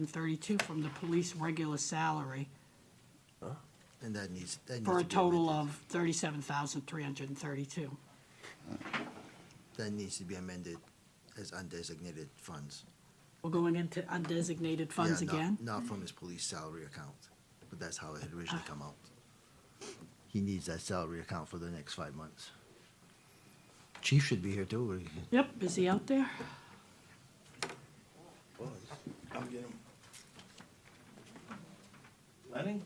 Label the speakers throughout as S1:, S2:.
S1: and thirty-two from the police regular salary
S2: And that needs, that needs to be.
S1: for a total
S2: amended.
S1: of thirty-seven thousand three hundred and thirty-two.
S2: That needs to be amended as undesignated funds.
S1: We're going into undesignated funds
S2: Yeah, not-
S1: again?
S2: Not from his police salary account, but that's how it had
S1: Ah.
S2: originally come out. He needs that salary account for the next five months. Chief should be here too. or he-
S1: Yep, is he out there?
S3: I'm getting. Lenny?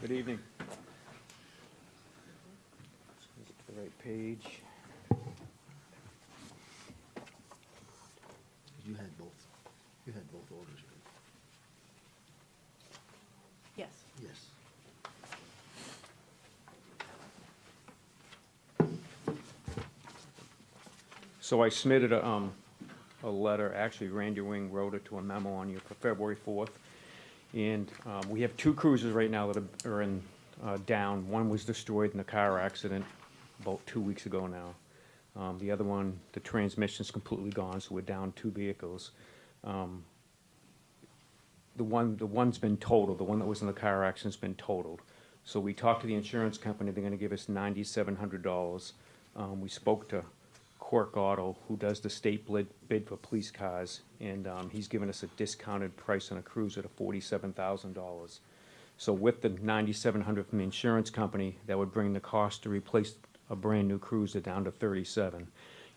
S4: Good evening. Is it The right page.
S2: You had both, you had both orders. right?
S1: Yes.
S2: Yes.
S4: So I submitted a, um, a letter, actually Randy Wing wrote it to a memo on you for February fourth. And, um, we have two cruisers right now that are- are in, uh, down. One was destroyed in a car accident about two weeks ago now. Um, the other one, the transmission's completely gone, so we're down two vehicles. Um, the one, the one's been totaled, the one that was in the car accident's been totaled. So we talked to the insurance company, they're gonna give us ninety-seven hundred dollars. Um, we spoke to Cork Auto, who does the state bid, bid for police cars, and, um, he's given us a discounted price on a cruiser to forty-seven thousand dollars. So with the ninety-seven hundred from the insurance company, that would bring the cost to replace a brand-new cruiser down to thirty-seven.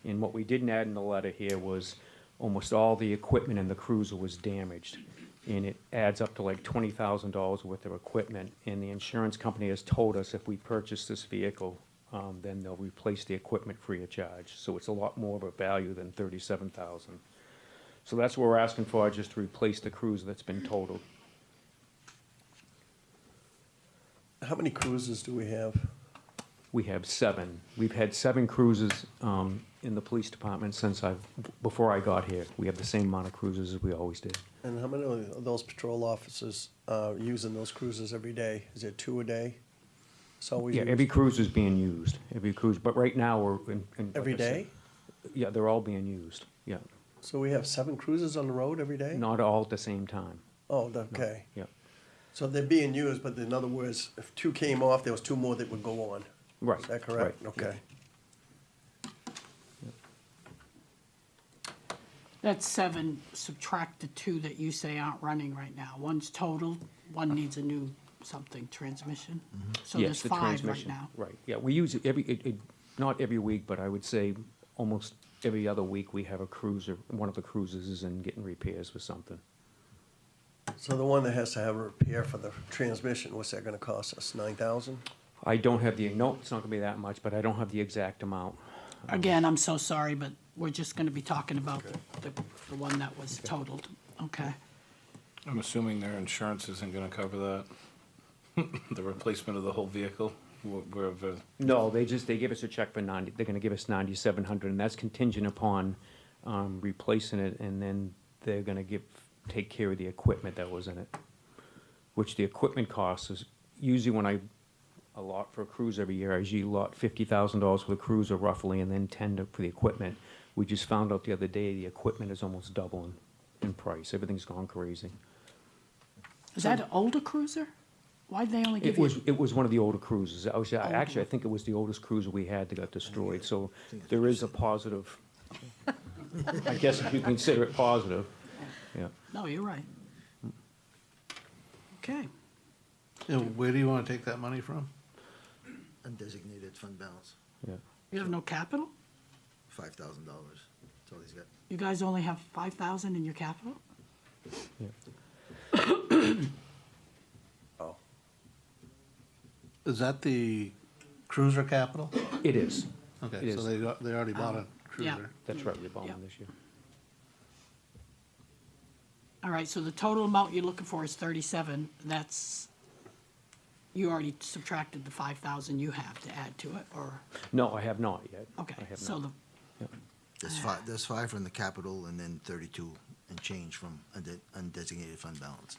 S4: And what we didn't add in the letter here was almost all the equipment in the cruiser was damaged. And it adds up to like twenty thousand dollars worth of equipment. And the insurance company has told us if we purchase this vehicle, um, then they'll replace the equipment free of charge. So it's a lot more of a value than thirty-seven thousand. So that's what we're asking for, just to replace the cruiser that's been totaled.
S3: How many cruises do we have?
S4: We have seven. We've had seven cruises um, in the police department since I, before I got here. We have the same amount of cruises as we always did.
S3: And how many of those patrol officers are using those cruises every day? Is there two a day? So we.
S4: Yeah,
S3: use-
S4: every cruise is being used, every cruise, but right now we're in. in- like
S3: Every
S4: I said-
S3: day?
S4: Yeah, they're all being used, yeah.
S3: So we have seven cruises on the road every day?
S4: Not all at the same time,
S3: Oh, okay.
S4: yeah.
S3: So they're being used, but in other words, if two came off, there was two more that would go on.
S4: Right.
S3: Is that correct?
S4: right, yeah.
S3: Okay.
S1: That's seven, subtract the two that you say aren't running right now. One's totaled, one
S2: Uh-huh.
S1: needs a new something, transmission.
S2: Mm-hmm.
S1: So
S4: Yes,
S1: there's
S4: the
S1: five right
S4: transmission,
S1: now.
S4: Right, yeah, we use it every, it, it, not every week, but I would say almost every other week we have a cruiser, one of the cruises is in getting repairs with something.
S3: So the one that has to have a repair for the transmission, what's that gonna cost us? Nine thousand?
S4: I don't have the, no, it's not gonna be that much, but I don't have the exact amount.
S1: Again, I'm so sorry, but we're just gonna be talking about the, the- the one that was totaled, okay?
S5: I'm assuming their insurance isn't gonna cover that, the replacement of the whole vehicle, wh- wherever,
S4: No, they just, they give us a check for ninety, they're gonna give us ninety-seven hundred, and that's contingent upon, um, replacing it, and then they're gonna give, take care of the equipment that was in it. Which the equipment cost is, usually when I allot for a cruise every year, I usually allot fifty thousand dollars for the cruiser roughly, and then ten to- for the equipment. We just found out the other day, the equipment is almost doubling in price, everything's gone crazy.
S1: Is that an older cruiser? Why'd they only give
S4: It
S1: you? Oh,
S4: was, it was one of the older cruisers. I was, I- actually, I think it was the oldest cruiser we had that got destroyed, so there is a positive. I guess if you consider it positive, yeah.
S1: No, you're right. Okay,
S6: And where do you want to take that money from?
S2: Undesignated fund balance,
S4: Yeah.
S1: you have no capital?
S2: five thousand dollars. That's all he's got.
S1: You guys only have five thousand in your capital?
S6: Is that the cruiser capital?
S4: It is. It
S6: Okay, so
S4: is.
S6: they, got- they already bought a
S1: yeah.
S6: cruiser.
S4: That's right, we bought one
S1: Yeah.
S4: this year.
S1: All right, so the total amount you're looking for is thirty-seven, that's, you already subtracted the five thousand you have to add to it, or,
S4: No, I have not yet.
S1: okay,
S4: I have
S1: so
S4: not.
S1: the, Ah.
S2: There's five, there's five from the capital and then thirty-two and change from unde- undesignated fund balance.